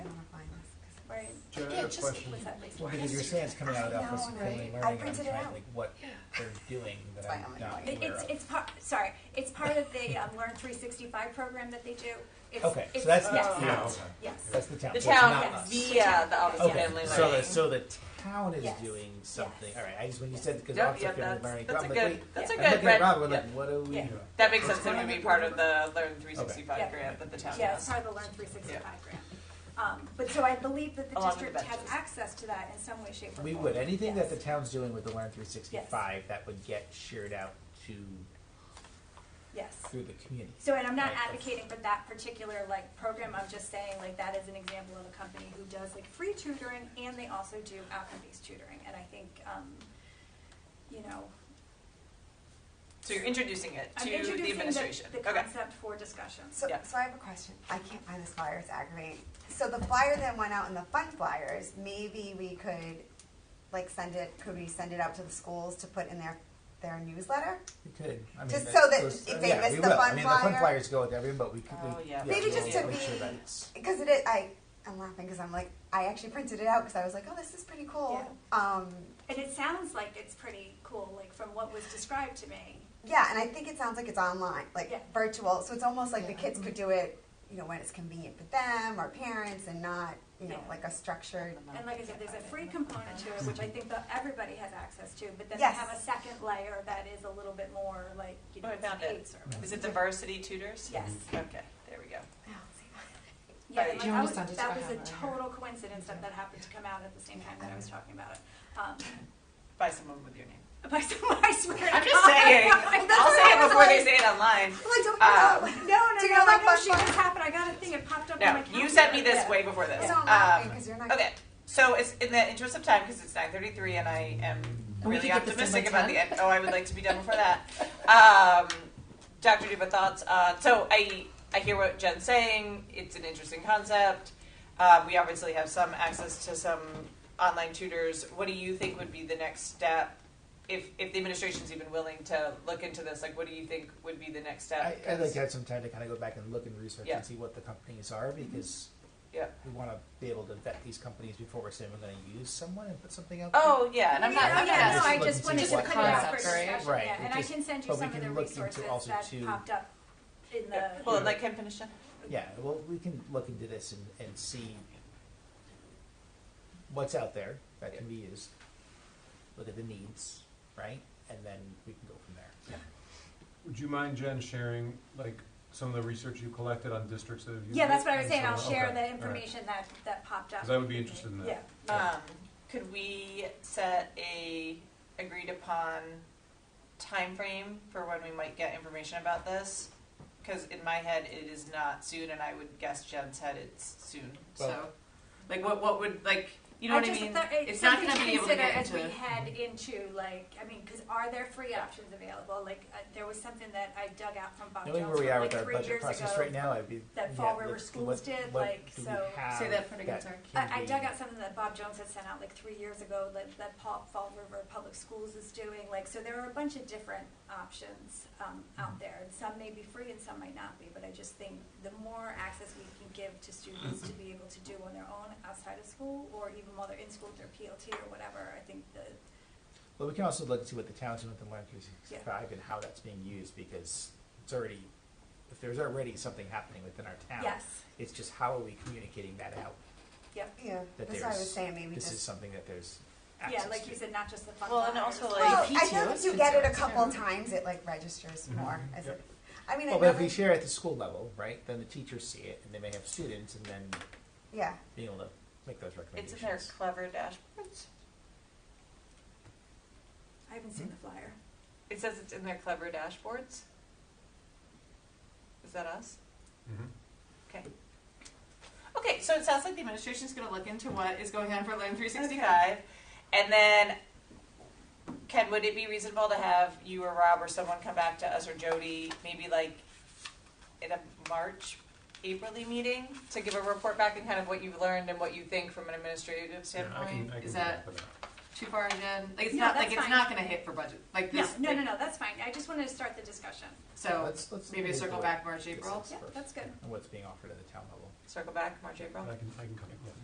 Yeah, a just question. with that basic- Well, because you're saying it's coming out of Yes. Alpha No, Family right. Learning, I and I'm printed it trying, out. like, what they're doing that That's why I'm I'm not annoyed. aware It's, of. it's part, sorry, it's part of the um, Learn three sixty-five program that they do. It's- Okay, so it's- that's the yes, town. Yeah, okay. Yes, That's the town, The so it's town not yes. us. via the Office of Okay, Family so the, Learning. so the town is Yes. doing something, Yes. all right, I just, when you Yes. said, because Yep, Office yep, of Family that's- Learning, that's I'm a like, good- wait, that's a I'm good looking at red- Rob, we're like, yep. what are we? Yeah. That makes sense, What's it would going be on? part of the Learn three sixty-five Yeah. grant that the town yeah, it's has. part of the Learn three sixty-five grant. Um, But so I believe that the Along with the district has benches. access to that in some way, shape or form. We would, anything that the Yes. town's doing with the Learn three sixty-five, that would get shared out to, Yes. through the community. So, and I'm not Right, that's- advocating for that particular like program, I'm just saying like that is an example of a company who does like free tutoring and they also do outcome-based tutoring. And I think, um, you know, So you're introducing it to I'm the introducing administration. the, the Okay. concept for discussion. So, Yeah. so I have a question. I can't find this flyer. It's aggravating. So the flyer that went out in the fun flyers, maybe we could, like, send it. Could we send it out to the schools to put in their their newsletter? We could, I mean. Just so that those- if they yeah, miss we the will. I fun mean, the fun flyer- flyers go with everyone, but we could, Oh, we, yeah. yeah, Maybe we'll just to make sure be- that it's- Because it is. I I'm laughing because I'm like I actually printed it out because I was like, oh, this is pretty cool. Um, And it sounds like it's pretty cool, like from what was described to me. yeah, and I think it sounds like it's online, like Yeah. virtual. So it's almost like the Yeah. kids could do it, you know, when it's convenient for them or parents, and not you know Yeah. like a structured. And like I said, there's a free component to it, which I think that everybody has access to, but then they Yes. have a second layer that is a little bit more like, you know, Oh, I it's found paid it. service. Is it the varsity tutors? Yes. Okay, there we go. Yeah, Right. like, You I was, understand it's that was a about her. total coincidence that that happened to come out at the same time that I was talking about it. Um, By someone with your name. By someone, I swear. to I'm just God. saying. Like, that's I'll what say I it was before they like- say it online. Well, I don't Um, know. No, no, Do you no, know I that know she fun- just happened, I got a thing, it popped up on my No, calendar. you sent me this Yeah. way before this. It's not Um, laughing because you're not. Okay, so it's in the interest of time because it's nine thirty-three, and I am we could get really this done optimistic by about the end. Oh, I would like to be done before that. Um, Dr. Duba thoughts. Uh, so I I hear what Jen's saying. It's an interesting concept. Uh, we obviously have some access to some online tutors. What do you think would be the next step? If, if the administration's even willing to look into this, like, what do you think would be the next I, step? I'd like to have some time to kind of go back and look and research Yeah. and see what the companies are Mm-hmm. because Yeah. we want to be able to vet these companies before we're saying we're going to use someone and put something out. Oh yeah, and I'm not. Yeah, I'm not yeah, no, just I look just and wanted see to what put it out for concepts, right? discussion, Right, yeah, we and I just- can send you but we some of can the look into resources also that to- popped up in the. Yeah. Well, like can finish it. Yeah, well, we can look into this and, and see what's out there that can be used. Look at the needs, right? And then we can go from there. Would you mind, Jen, sharing like some of the research you collected on districts that have used Yeah, that's it? what I was saying, I'll Okay, share all the right. information that, that popped up. 'Cause I would be interested in that. Yeah. Um, could we set a agreed upon timeframe for when we might get information about this? Because in my head, it is not soon, and I would guess Jen's head it's soon. so, Well- like, what what would like you know what I just mean? thought It's It's not something going to be able to consider get as into. we head into like, I mean, because are there free options available? Like, uh, there was something that I dug out from Bob Knowing Jones where Uh, we from, are like with our three budget years process ago. right now, I'd be that yeah, Fall River let's- Schools what- did, what like, do we so- have Say that part again, sorry. can I, I be- dug out something that Bob Jones had sent out like three years ago that, that Paul Fall River Public Schools is doing. Like, so there are a bunch of different options um, Mm-hmm. out there, and some may be free and some might not be. But I just think the more access we can give to students to be able to do on their own outside of school, or even while they're in school with their PLT or whatever, I think the Well, we can also look and see what the town's doing with the Land three sixty-five and how that's being used, because it's already, if there's already something happening within our town. yes, It's just how are we communicating that out, yep. Yeah, that that's what I was there's, saying. Maybe this is just. something that there's Yeah, access like you to. said, not just the fun. Well, and flyers. also, like, Well, Like I know PTO that is you get it a concerned, couple too. times. It like registers Mhm. more. As Yep. it, I mean, I Well, but if never- we share at the school level, right, then the teachers see it, and they may have students, and then yeah. being able to make those it's in recommendations. their clever dashboards. I haven't seen the flyer. It says it's in their clever dashboards. Is that us? Mhm. Okay, so it sounds like the administration's going to look into what is going on for Learn 365. 65. And then, Ken, would it be reasonable to have you or Rob or someone come back to us or Jody, maybe like in a March, April meeting, to give a report back and kind of what you've learned and what you think from an administrative Yeah, I standpoint? can, I can. Is do that- Too far again? Like it's No, not like that's it's fine. not going to hit for budget. Like No, this. no, like- no, no. That's fine. I just wanted to start the discussion. So Let's- let's maybe look circle into back March, this April. is Yeah, first, that's good. And what's being offered at the town level. Circle back, March, April. I can, I can come, yeah.